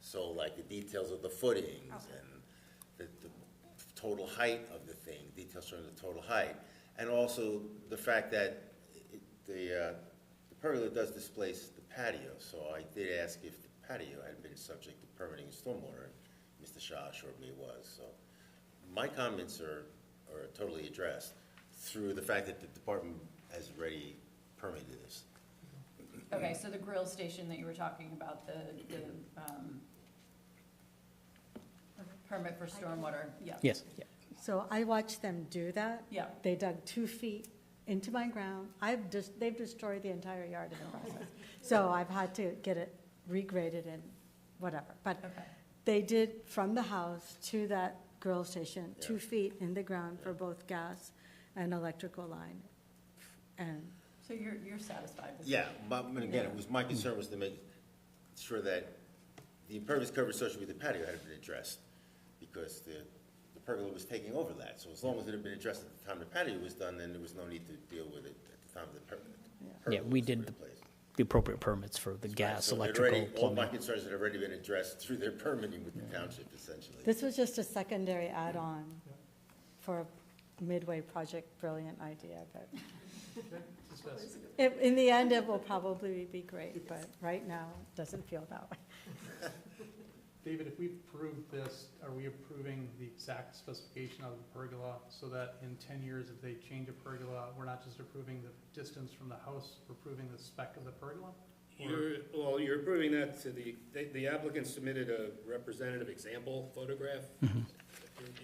So like the details of the footings Okay. and the, the total height of the thing, details showing the total height. And also the fact that it- the, uh, the pergola does displace the patio, so I did ask if the patio had been subject to permitting and stormwater. and Mr. Shaw assured me it was, so my comments are, are totally addressed through the fact that the department has already permitted this. Okay, so the grill station that you were talking about, the, the, um, permit for stormwater, yeah. Yes, yeah. So I watched them do that. Yeah, They dug two feet into my ground. I've just, they've destroyed the entire yard in the process. So I've had to get it regraded and whatever. But okay, they did from the house to that grill station, two Yeah. feet in the ground for both gas and electrical line. And so you're, you're satisfied with that? Yeah, but, but again, it was, my concern was to make sure that the impervious coverage associated with the patio had been addressed, because the, the pergola was taking over that, so as long as it had been addressed at the time the patio was done, then there was no need to deal with it at the time the per- pergola Yeah, we was did the replaced. The appropriate permits for the gas, So they'd electrical, already- All my plumbing. concerns had already been addressed through their permitting with the township essentially. this was just a secondary add-on for a midway project, brilliant idea, but it- in the end, it will probably be great, but right now, it doesn't feel that way. David, if we approve this, are we approving the exact specification of the pergola so that in ten years, if they change a pergola, we're not just approving the distance from the house, we're approving the spec of the pergola? You're, well, you're approving that to the, they- the applicant submitted a representative example photograph Mm-hmm. in-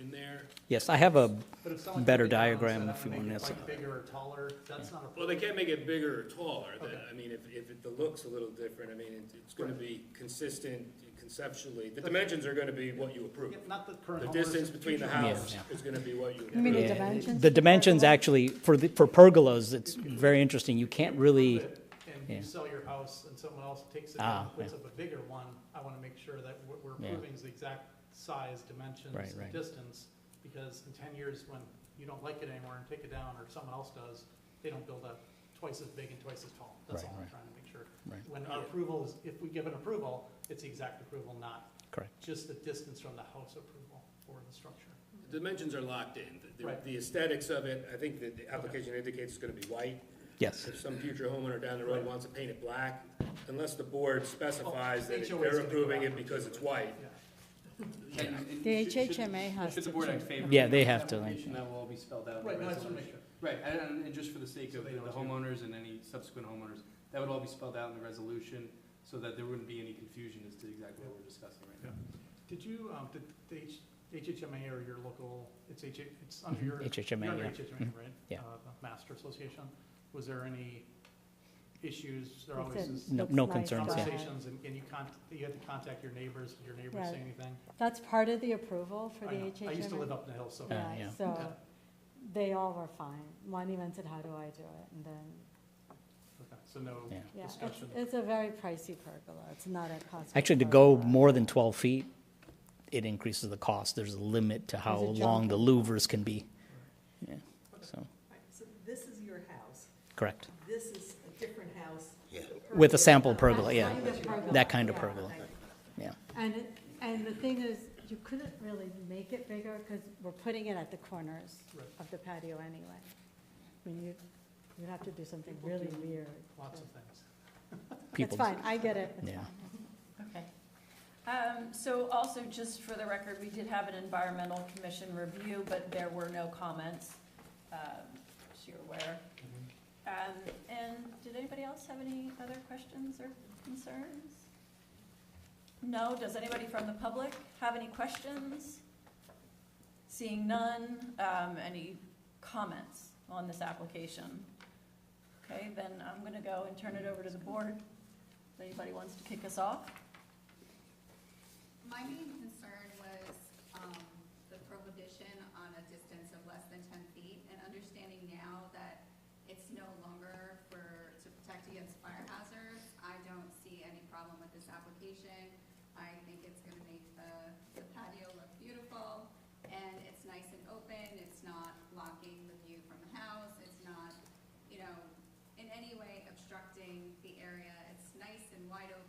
in there. Yes, I have a, But if someone Better came down and said, diagram "I'm if you gonna make want it, this. like, Bigger or taller, that's not a. Well, they can't make it bigger or taller, that- Okay. I mean, if, if it- the look's a little different, I mean, it- it's gonna be consistent conceptually. The dimensions are gonna be what you approve. Yeah, Not the current The homeowners. distance between the future house Yeah, is gonna be what you You mean approve. Yeah, the dimensions? the of the dimensions pergola? actually, for the, for pergolas, it's very interesting. You can't really, homeowners And yeah. you sell your house and someone else takes it Ah, and puts yeah. up a bigger one, I wanna make sure that what we're Yeah. approving is the exact size, dimensions, Right, and right. distance. Because in ten years, when you don't like it anymore and take it down, or someone else does, they don't build up twice as big and twice as tall. That's Right, all I'm right. trying to make sure. Right. When our approval is, if we give an approval, it's the exact approval, not correct, just the distance from the house approval or the structure. The dimensions are locked in. The- the- Right. The aesthetics of it, I think that the application indicates it's gonna be white. yes. If some future homeowner down the road wants to paint it black, unless the board specifies that HOA is they're gonna go approving it after it. because it's white, Yeah. The HHMA has Should to the board do act it. favorably? Yeah, on they this have to, like- application, That will all be spelled out. in the Right, no, I just wanna make resolution. sure. Right, and, and- and just for the sake So of they the know the too. homeowners and any subsequent homeowners, that would all be spelled out in the resolution, so that there wouldn't be any confusion as to exactly what we're discussing right now. Did you, um, did the H- HHMA or your local, it's H, it's under Mhm, your. HHMA, you're under yeah. Mm-hmm. HHMA, right? yeah. Uh, the Master Association, was there any issues, there It's always in- is No- it's no nice concerns, yeah. to have. conversations, and and you con, you had to contact your neighbors, did your neighbors say Right. anything? That's part of the approval for I the know. HHMA. I used to live up in the hill, so. Yeah, Yeah, yeah. so they all were fine. One even said, how do I do it? And then, Okay, So no Yeah. yeah, it's, discussion. it's a very pricey pergola. It's not a cost. Actually, to go more than twelve feet, it increases the cost. There's a limit to how There's a long jump. the louvers can be. Yeah, so, So this is your house, correct. this is a different house. Yeah. With a sample pergola. pergola, yeah. That kind of pergola, yeah. And, it- and the thing is, you couldn't really make it bigger because we're putting it at the corners Right. of the patio anyway. I mean, you, you'd have to do something really weird. Lots of things. It's People, fine, I get it, it's Yeah. fine. Okay. Um, so also, just for the record, we did have an environmental commission review, but there were no comments, um, as you're aware. Um, and did anybody else have any other questions or concerns? No, does anybody from the public have any questions? Seeing none, um, any comments on this application? Okay, then I'm gonna go and turn it over to the board. If anybody wants to kick us off? My main concern was, um, the prohibition on a distance of less than ten feet, and understanding now that it's no longer for, to protect against fire hazards, I don't see any problem with this application. I think it's gonna make the, the patio look beautiful, and it's nice and open, it's not blocking the view from the house, it's not, you know, in any way obstructing the area. It's nice and wide open